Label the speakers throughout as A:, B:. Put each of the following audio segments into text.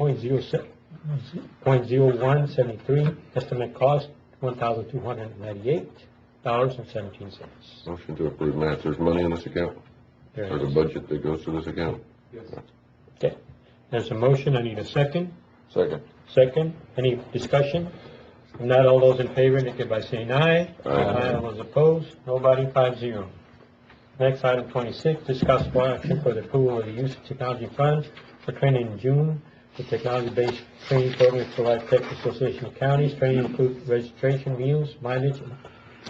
A: 102.0173, estimate cost $1,298.17.
B: Motion to approve minutes. There's money in this account?
A: There
B: There's
A: it
B: a
A: is.
B: budget that goes to this account?
A: Okay. There's a motion, I need a second.
B: Second.
A: Second, any discussion? If not, all those in favor indicate by saying aye.
B: Aye.
A: All those opposed, nobody, five zero. Next, item twenty-six, discuss one action for the approval of the use of technology funds for training in June. The technology-based training program for Life Tech Association of Counties, training includes registration, meals, mileage,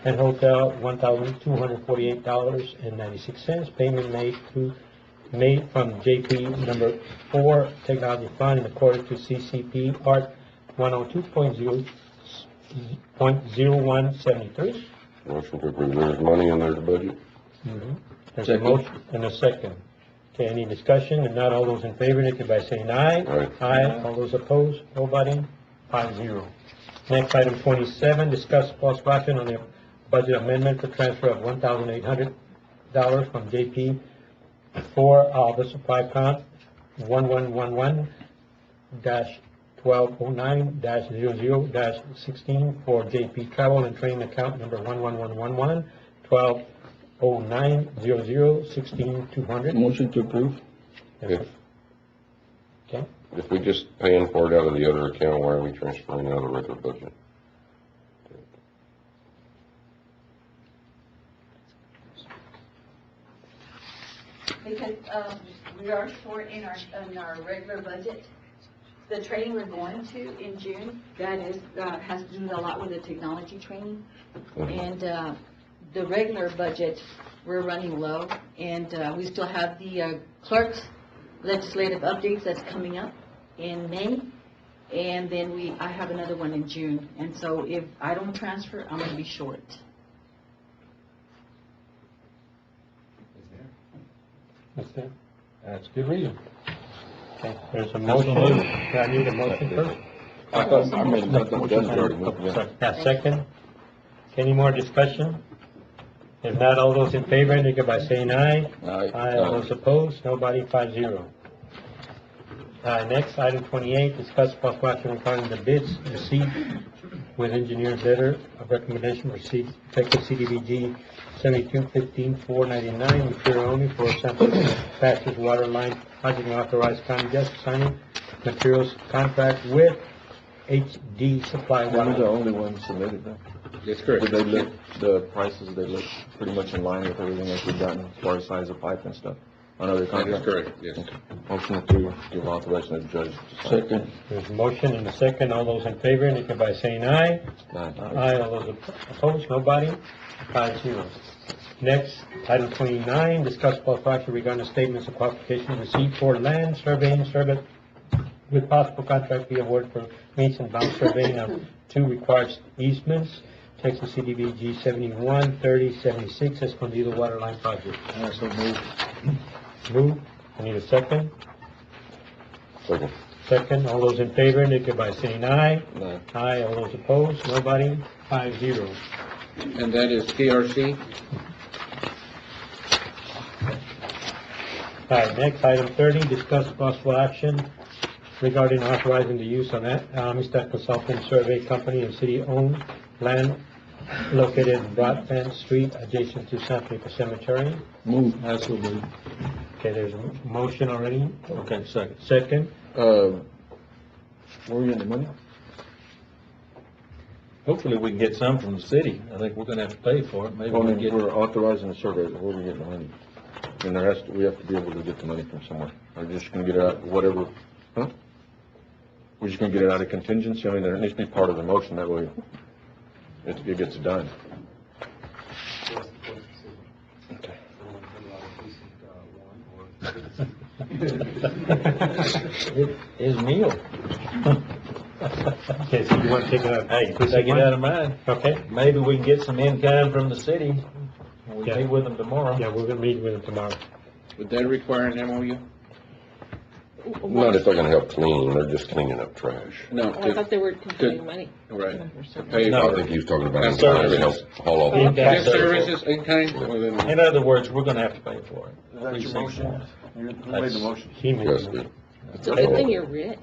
A: and hotel, one thousand two hundred forty-eight dollars and ninety-six cents, payment made through, made from JP number four Technology Fund in accordance to CCP Part one oh two point zero, point zero one seventy-three.
B: Motion to approve. There's money and there's a budget?
A: There's a
B: Second.
A: motion and a second. Okay, any discussion? If not, all those in favor, indicate by saying aye.
B: Aye.
A: All those opposed, nobody, five zero. Next, item twenty-seven, discuss possible action on the budget amendment for transfer of one thousand eight hundred dollars from JP for, uh, the supply account one one one one dash twelve oh nine dash zero zero dash sixteen for JP Travel and Training Account number one one one one one twelve oh nine zero zero sixteen two hundred.
C: Motion to approve.
B: If,
A: Okay,
B: if we just paying for it out of the other account, why are we transferring out of the regular budget?
D: because, um, we are short in our, in our regular budget. The training we're going to in June, that is, uh, has to do a lot with the technology training. And, uh, the regular budget, we're running low, and, uh, we still have the uh, clerk's legislative updates that's coming up in May. And then we, I have another one in June, and so if I don't transfer, I'm gonna be short.
A: that's it. That's good reason. Okay, there's a motion. I need a motion first.
B: I thought, I made that
A: Sorry, Yeah, second. Any more discussion? If not, all those in favor, indicate by saying aye. Aye,
C: uh,
A: all those opposed, nobody, five zero. Uh, next, item twenty-eight, discuss possible action regarding the bids received with engineer's letter of recommendation received effective CDBG seventy-two fifteen four ninety-nine, material only for sample patches water line project and authorized county justice signing materials contract with HD Supply
C: Those are the
A: Water.
C: only ones submitted though.
E: That's
C: Did
E: correct.
C: they look, the prices, they look pretty much in line with everything else we've gotten as far as size of pipe and stuff on
E: That
C: other
E: is
C: contracts?
E: correct, yes.
C: Motion to give authorization to the judge. Second.
A: There's a motion and a second, all those in favor, indicate by saying aye.
C: Aye.
A: Aye, all those uh, opposed, nobody, five zero. Next, item twenty-nine, discuss possible action regarding statements of qualification received for land surveying service with possible contract be awarded for meets and bounds surveying of two required easements, Texas CDBG seventy-one thirty seventy-six, Escondido Waterline Project.
C: So moved.
A: Move, I need a second.
B: Second.
A: Second, all those in favor, indicate by saying aye.
C: Aye.
A: Aye, all those opposed, nobody, five zero.
E: And that is TRC?
A: All right, next, item thirty, discuss possible action regarding authorizing the use of that, uh, Amistad Consulting Survey Company and city-owned land located in Broadbent Street adjacent to San Pedro Cemetery.
C: Move. I so moved.
A: Okay, there's a motion already.
C: Okay, second.
A: Second,
C: Uh, were we in the money?
F: Hopefully, we can get some from the city. I think we're gonna have to pay for it. Maybe
C: Well, I
F: we'll
C: mean,
F: get,
C: we're authorizing the survey, but where are we getting the money? And there has, to- we have to be able to get the money from somewhere. We're just gonna get it out, whatever, huh? We're just gonna get it out of contingency, I mean, there needs to be part of the motion, that way it, it gets done.
F: his meal.
A: okay, so you want to take it out?
F: Hey, take it out of mine.
A: Okay,
F: Maybe we can get some in-kind from the city. We'll
A: Yeah.
F: meet with them tomorrow.
A: yeah, we're gonna meet with them tomorrow.
E: Would that require an MOU?
B: Not if they're gonna help clean, they're just cleaning up trash.
E: No,
G: Oh, I
E: to,
G: thought they were contributing money.
E: right,
G: or
E: to
G: something.
E: pay
B: I
E: for
B: think he was talking about,
E: That's
B: trying to help
E: services.
B: haul off.
A: In-
E: Yes, services in kind? Well, then-
F: In other words, we're gonna have to pay for it.
C: Is that your motion? You made the motion.
A: He made
B: Yes,
A: the
B: good.
A: motion.
H: It's
D: It's a good
H: all-
D: thing you're rich.